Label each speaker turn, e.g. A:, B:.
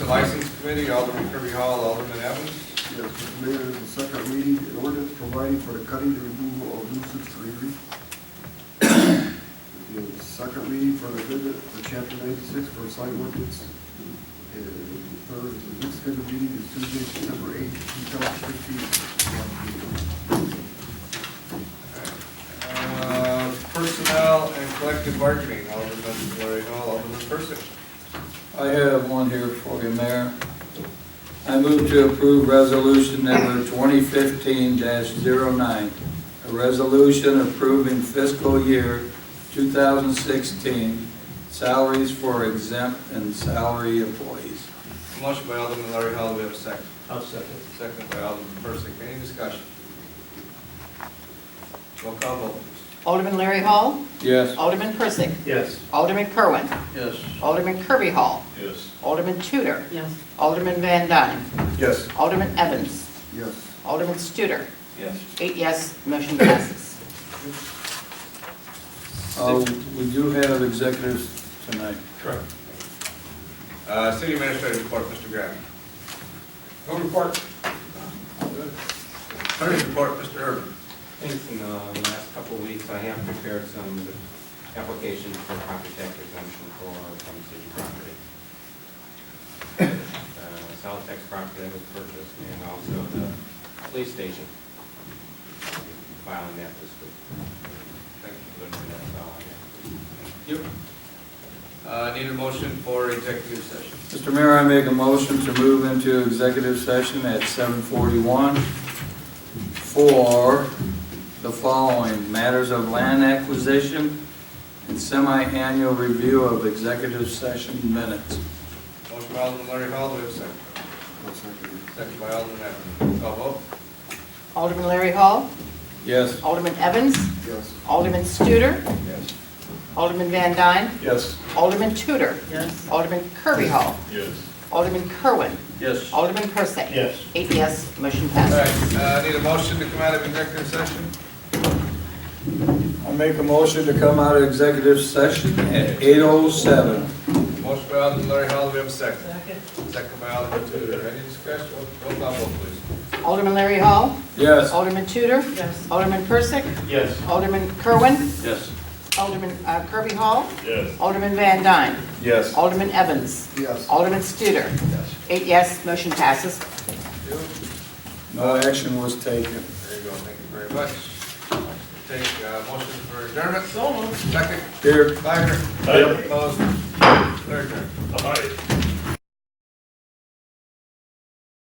A: License Committee, Alderman Kirby Hall, Alderman Evans.
B: Yes, Mr. Mayor, the second reading, an ordinance providing for the cutting and removal of nuisance trees. The Second reading for the amendment for chapter ninety-six for site ordinance. And the third, the next scheduled reading is Tuesday, September eighth, two thousand fifteen.
A: Uh, Personnel and collective bargaining, Alderman Larry Hall, Alderman Persick.
C: I have one here for you, Mayor. I move to approve resolution number 2015-09, a resolution approving fiscal year 2016 salaries for exempt and salary employees.
A: Motion by Alderman Larry Hall, we have a second.
D: I'll second.
A: Second by Alderman Persick, any discussion? Roll call vote, please.
E: Alderman Larry Hall.
C: Yes.
E: Alderman Persick.
D: Yes.
E: Alderman Kerwin.
C: Yes.
E: Alderman Kirby Hall.
D: Yes.
E: Alderman Tudor.
F: yes,
E: Alderman Van Dyne.
A: Yes.
E: Alderman Evans.
B: Yes,
E: Alderman Studer.
D: Yes.
E: Eight yes, motion passes.
C: We do Uh, have executives tonight.
A: Correct. Uh, City Administrator report, Mr. Graham. No report. Attorney report, Mr. Urban.
G: Thanks, in uh, the last couple of weeks, I have prepared some applications for property tax exemption for some city property. Uh, South Tex property that was purchased, and also the police station. Filing that this week. Thank you, that's all I have.
A: You. Uh, need a motion for executive session.
C: Mr. Mayor, I make a motion to move into executive session at 7:41 for the following: matters of land acquisition and semi-annual review of executive session minutes.
A: Motion by Alderman Larry Hall, do we have a second?
B: I'll second it.
A: Second by Alderman Evans. Call vote.
E: Alderman Larry Hall.
C: Yes.
E: Alderman Evans.
B: Yes.
E: Alderman Studer.
A: Yes.
E: Alderman Van Dyne.
C: Yes.
E: Alderman Tudor.
F: yes.
E: Alderman Kirby Hall.
D: Yes.
E: Alderman Kerwin.
C: Yes.
E: Alderman Persick.
D: Yes.
E: Eight yes, motion
A: All
E: passes.
A: right, uh, need a motion to come out of executive session?
C: I make a motion to come out of executive session at 8:07.
A: Motion by Alderman Larry Hall, do we have a second?
F: Second.
A: Second by Alderman Tudor. Any discussion? Roll call vote, please.
E: Alderman Larry Hall.
C: Yes.
E: Alderman Tudor.
F: Yes.
E: Alderman Persick.
D: Yes.
E: Alderman Kerwin.
C: Yes.
E: Alderman uh, Kirby Hall.
D: Yes.
E: Alderman Van Dyne.
C: Yes.
E: Alderman Evans.
B: Yes.
E: Alderman Studer. Eight yes, motion passes.
C: No action was taken.
A: There you go, thank you very much. Take, uh, motion for adjournment. Second,
C: Here.
A: Wagner.
D: Yep.
A: Opposed, third.
D: All right.